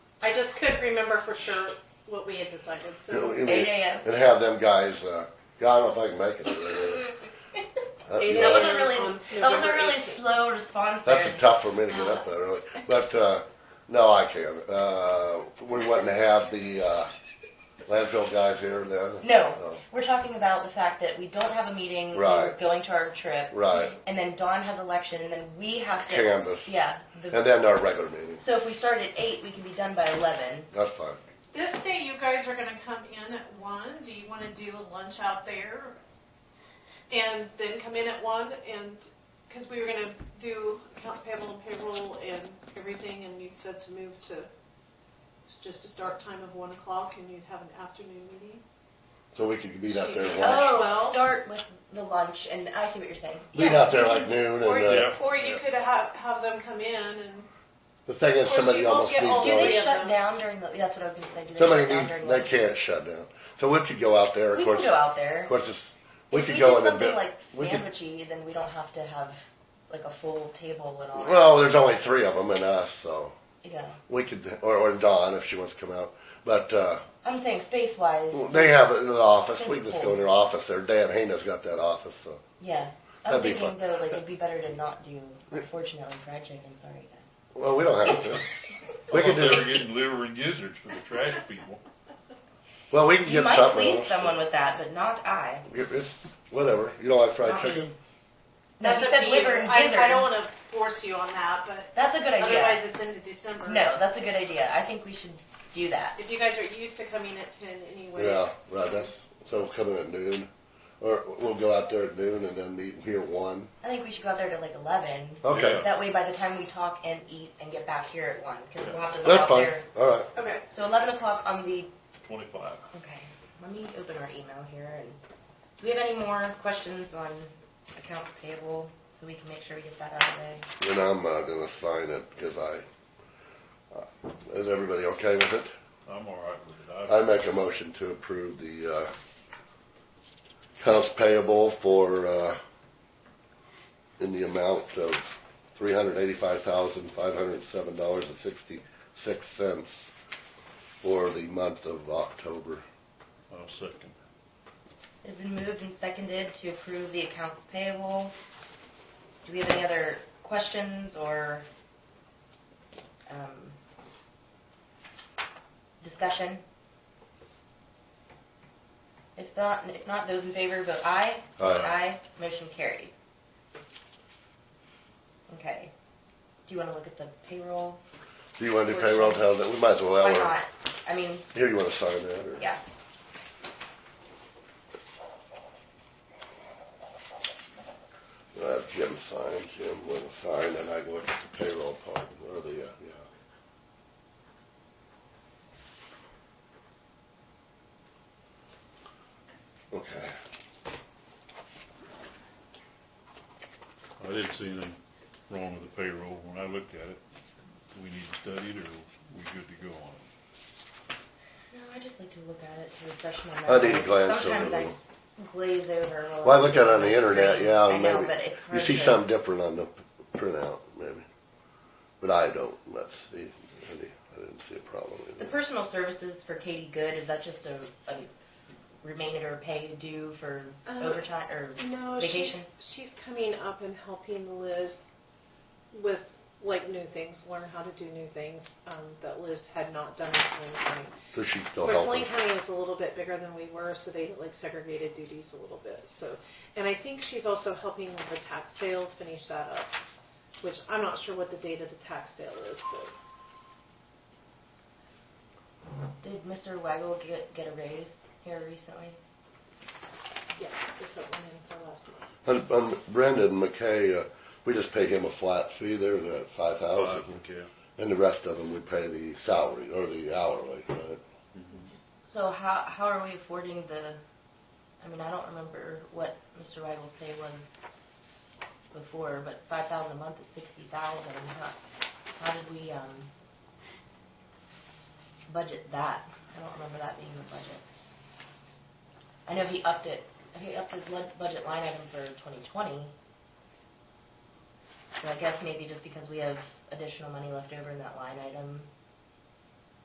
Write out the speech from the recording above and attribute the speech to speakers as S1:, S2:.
S1: I just couldn't remember for sure what we had decided, so
S2: Yeah, we-
S3: Eight AM.
S2: and have them guys. Uh, God, I don't know if I can make it. To there.
S1: Eight
S2: you
S3: That
S2: know,
S3: was a really, that was a
S1: November
S3: really
S1: 18th.
S3: slow response
S2: Um, That's
S3: there.
S2: a tough for me to get up that early, but, uh, no, I can. Uh, we wouldn't have the, uh, landfill guys here then. Uh,
S3: No, we're talking about the fact that we don't have a meeting. We're
S2: Right.
S3: going to our trip,
S2: Right,
S3: and then Dawn has election, and then we have to.
S2: Canvas.
S3: Yeah. the-
S2: and then our regular meeting,
S3: So if we start at eight, we can be done by eleven.
S2: that's fine.
S4: This day you guys are gonna come in at one, do you wanna do a lunch out there? And then come in at one and, cause we were gonna do accounts payable and payroll and everything and you said to move to, it's just a start time of one o'clock and you'd have an afternoon meeting.
S2: So we could meet out there, at
S4: Oh,
S2: lunch.
S4: well.
S3: Start with the lunch, and I see what you're saying.
S2: meet out there like noon and,
S4: Or
S2: uh,
S4: you, or you could have, have them come in and,
S2: the thing
S4: Of
S2: is
S4: course,
S2: somebody
S4: you won't
S2: almost
S4: get
S2: needs
S4: all
S3: Do
S2: to,
S4: the-
S3: they
S2: always-
S4: yeah,
S3: shut
S4: no.
S3: down during the? That's what I was gonna say. Do they
S2: somebody
S3: shut down
S2: needs,
S3: during
S2: they
S3: lunch?
S2: can't shut down. So we could go out there, of
S3: We
S2: course,
S3: can go
S2: of
S3: out there.
S2: course, it's- we
S3: If
S2: could
S3: we
S2: go
S3: did
S2: in and.
S3: something
S2: bit-
S3: like
S2: we could-
S3: sandwichy, then we don't have to have like a full table and all. that.
S2: Well, there's only three of them and us, so.
S3: yeah,
S2: We could, or, or Dawn if she wants to come out. But uh,
S3: I'm saying space wise.
S2: they have it in the office. We can just go in their office there. Dan Hana's got that office, so
S3: Yeah, I'm
S2: That'd be
S3: thinking
S2: fun.
S3: though, like it'd be better to not do. Unfortunately, fried chicken. Sorry, guys.
S2: well, we don't have to. We
S5: I
S2: could
S5: thought they were
S2: do.
S5: getting liver and gizzards for the trash people.
S2: Well, we can
S3: You
S2: get
S3: might
S2: something.
S3: please
S2: else.
S3: someone with that, but not I.
S2: It- it's- whatever. You don't like fried
S3: Not me.
S2: chicken?
S3: No,
S4: that's
S3: he
S4: up
S3: said
S4: to you.
S3: liver and
S4: I, I don't
S3: gizzards.
S4: wanna force you on that, but
S3: That's a good idea.
S4: otherwise it's into December.
S3: No, that's a good idea. I think we should do that.
S4: If you guys are used to coming at ten anyways.
S2: Yeah, right. That's so we'll come in at noon, or we'll go out there at noon and then meet here at one.
S3: I think we should go out there to like eleven.
S2: Okay,
S5: Yeah.
S3: That way, by the time we talk and eat and get back here at one, because we'll have to go
S2: that's
S3: out
S2: fine.
S3: there.
S2: All right.
S4: Okay.
S3: So eleven o'clock on the
S5: Twenty-five.
S3: Okay, let me open our email here and, do we have any more questions on accounts payable, so we can make sure we get that out of the way?
S2: And I'm uh, gonna sign it because I. Uh, is everybody okay with it?
S5: I'm all right with it. I-
S2: I make a motion to approve the, uh, accounts payable for, uh, in the amount of three hundred eighty-five thousand, five hundred and seven dollars and sixty-six cents for the month of October.
S5: I'll second.
S3: It's been moved and seconded to approve the accounts payable. Do we have any other questions or, um, discussion? If not, if not, those in favor vote aye.
S2: Aye.
S3: Aye, motion carries. Okay, do you wanna look at the payroll?
S2: Do you wanna do payroll tell that, we might as well,
S3: Why
S2: or,
S3: not? I mean,
S2: here, you wanna sign that, or?
S3: yeah.
S2: I'll have Jim sign, Jim will sign, and I can look at the payroll part, or the, uh, yeah. Okay,
S5: I didn't see anything wrong with the payroll when I looked at it. Do we need to study it or we good to go on it?
S3: No, I just like to look at it to refresh my
S2: I
S3: memory.
S2: need to glance over
S3: Sometimes I
S2: them.
S3: glaze over. a
S2: Well, I look at it
S3: little
S2: on the
S3: screen.
S2: internet, yeah,
S3: I know,
S2: maybe.
S3: but it's
S2: You
S3: hard
S2: see
S3: to-
S2: something different on the p- printout, maybe, but I don't, let's see, I di- I didn't see a problem
S3: The
S2: with it.
S3: personal services for Katie Good, is that just a, a remainder pay due for
S4: Uh,
S3: overtime or?
S4: No,
S3: Vacation?
S4: she's she's coming up and helping Liz with like new things, learn how to do new things um, that Liz had not done in Saline County.
S2: So she's still
S4: Where Saline
S2: helping,
S4: County is a little bit bigger than we were, so they like segregated duties a little bit. So, and I think she's also helping with the tax sale, finish that up, which I'm not sure what the date of the tax sale is, but
S3: Did Mr. Waggle get, get a raise here recently?
S4: yes, there's that one in for last month.
S2: and, and Brendan McKay, uh, we just pay him a flat fee, there's at five thousand.
S5: Five, okay.
S2: And the rest of them, we pay the salary or the hourly, right?
S3: So how, how are we affording the, I mean, I don't remember what Mr. Weigel's pay was before, but five thousand a month is sixty thousand. How, how did we, um, budget that? I don't remember that being the budget. I know he upped it, he upped his lud- budget line item for twenty twenty. So I guess maybe just because we have additional money left over in that line item,